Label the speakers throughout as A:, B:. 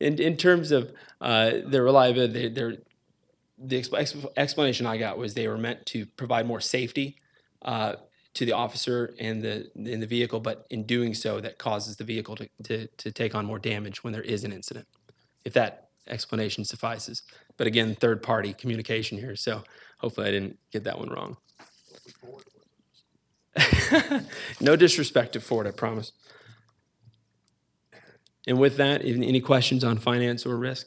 A: in, in terms of uh, their reliability, their, their- the exp- exp- explanation I got was they were meant to provide more safety uh, to the officer and the, in the vehicle, but in doing so, that causes the vehicle to, to, to take on more damage when there is an incident, if that explanation suffices. But again, third-party communication here, so hopefully I didn't get that one wrong. No disrespect to Ford, I promise. And with that, any any questions on finance or risk?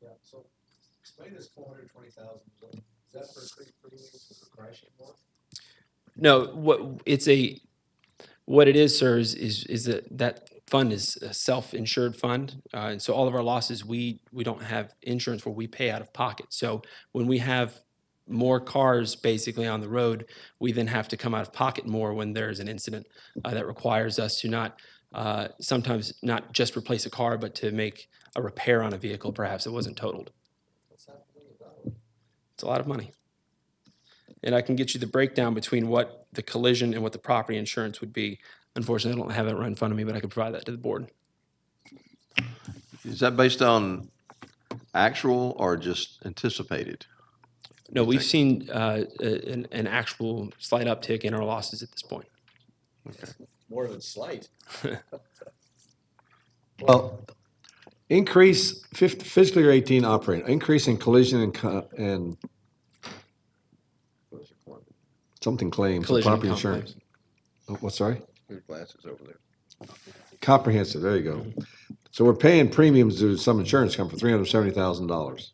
B: Yeah, so explain this four hundred twenty thousand, is that for creek freeways for the crashing one?
A: No, what it's a what it is, sir, is is, is that that fund is a self-insured fund, uh, and so all of our losses we we don't have insurance where we pay out of pocket. So when we have more cars basically on the road, we then have to come out of pocket more when there is an incident uh, that requires us to not uh, sometimes not just replace a car, but to make a repair on a vehicle perhaps that wasn't totaled.
B: What's happening about it?
A: It's a lot of money. And I can get you the breakdown between what the collision and what the property insurance would be. Unfortunately, I don't have that right in front of me, but I can provide that to the board.
C: Is that based on actual or just anticipated?
A: No, we've seen uh, a- an an actual slight uptick in our losses at this point.
B: More than slight.
D: Well, increase fif- fiscal year eighteen operating, increase in collision and co- and something claims, some
A: Collision and
D: property
A: comp claims.
D: insurance. Oh, What, sorry?
C: Your glasses over there.
D: Comprehensive, there you go. So we're paying premiums to some insurance company for three hundred and seventy thousand dollars.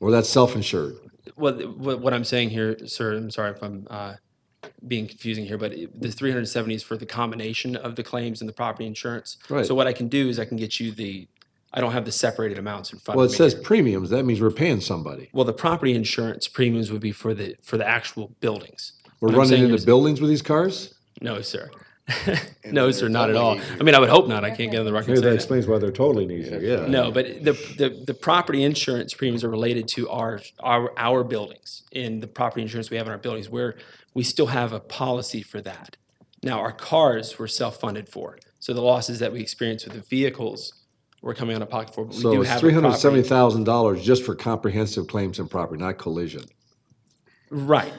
D: Or that's self-insured.
A: Well, th- what what I'm saying here, sir, I'm sorry if I'm uh, being confusing here, but it- the 370 is for the combination of the claims and the property insurance.
D: Right.
A: So what I can do is I can get you the, I don't have the separated amounts in front
D: Well,
A: of
D: it
A: me.
D: says
A: here.
D: premiums, that means we're paying somebody.
A: Well, the property insurance premiums would be for the, for the actual buildings.
D: We're
A: What I'm saying
D: running into
A: is-
D: buildings with these cars?
A: No, sir. No, sir,
C: it's
A: not at all.
C: always
A: I mean, I would hope not. I can't get on the record
D: Maybe that
A: saying that.
D: explains why they're totally easier, yeah.
A: No, but the, the, the property insurance premiums are related to our, our, our buildings and the property insurance we have in our buildings where we still have a policy for that. Now, our cars were self-funded for. So the losses that we experience with the vehicles were coming out of pocket for, but we
D: So
A: do
D: it's
A: have
D: three
A: a
D: hundred and seventy
A: property.
D: thousand dollars just for comprehensive claims and property, not collision.
A: Right.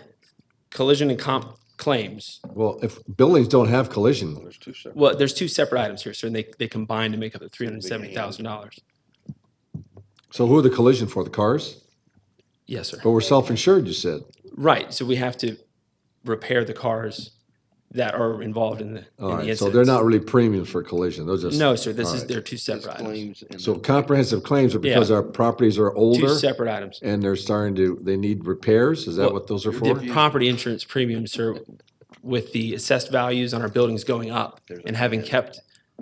A: Collision and comp claims.
D: Well, if buildings don't have collision,
C: There's two separate.
A: Well, there's two separate items here, sir, and they, they combine to make up the three hundred and seventy thousand dollars.
D: so who are the collision for? The cars?
A: Yes, sir.
D: But we're self-insured, you said.
A: Right, so we have to repair the cars that are involved in the, in
D: All
A: the
D: right,
A: incidents.
D: so they're not really premiums for collision. Those are
A: No, sir, this
D: all
A: is,
D: right.
A: they're two separate items.
C: Claims and
D: So comprehensive claims are because
A: Yeah.
D: our properties are
A: Two
D: older
A: separate items.
D: and they're starting to, they need repairs? Is that
A: Well,
D: what those are for?
A: The property insurance premiums, sir, with the assessed values on our buildings going up and having kept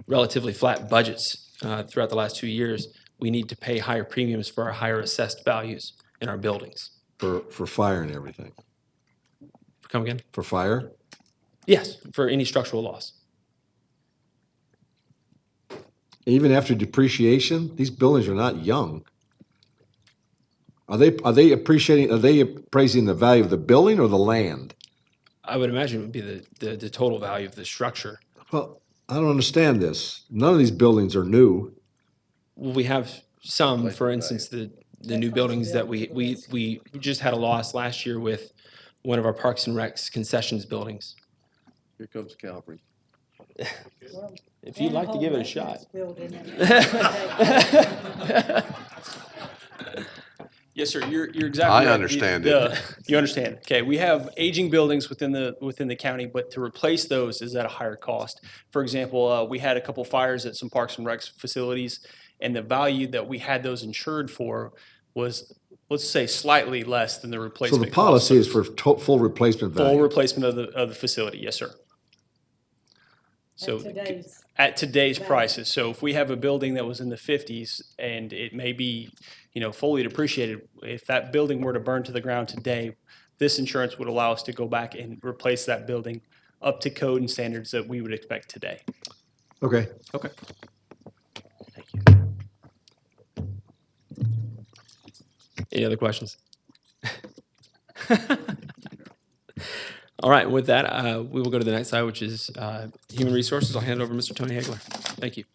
A: relatively flat budgets uh, throughout the last two years, we need to pay higher premiums for our higher assessed values in our buildings.
D: For, for fire and everything?
A: Come again?
D: For fire?
A: Yes, for any structural loss.
D: Even after depreciation, these buildings are not young. Are they, are they appreciating, are they appraising the value of the building or the land?
A: I would imagine it would be the, the, the total value of the structure.
D: Well, I don't understand this. None of these buildings are new.
A: Well, we have some, for instance, the, the new buildings that we, we, we just had a loss last year with one of our Parks and Recs concessions buildings.
C: Here comes Calvary.
A: If you'd like to give it a shot.
E: Yes, sir, you're, you're exactly
C: I
E: right. The-
C: understand it.
E: the- You understand, okay, we have aging buildings within the, within the county, but to replace those is at a higher cost. For example, uh, we had a couple fires at some Parks and Recs facilities, and the value that we had those insured for was, let's say, slightly less than the
D: So
E: replacement.
D: the
E: cost.
D: policy is for to- full replacement
E: Full
D: value.
E: replacement of the, of the facility, yes, sir. So.
F: At today's,
E: at today's
F: Right.
E: prices. So if we have a building that was in the fifties and it may be, you know, fully depreciated, if that building were to burn to the ground today, this insurance would allow us to go back and replace that building up to code and standards that we would expect today.
D: Okay.
E: Okay.
A: Any other questions? All right, with that, uh, we will go to the next slide, which is uh, Human Resources. I'll hand it over to Mr. Tony Hagler. Thank you.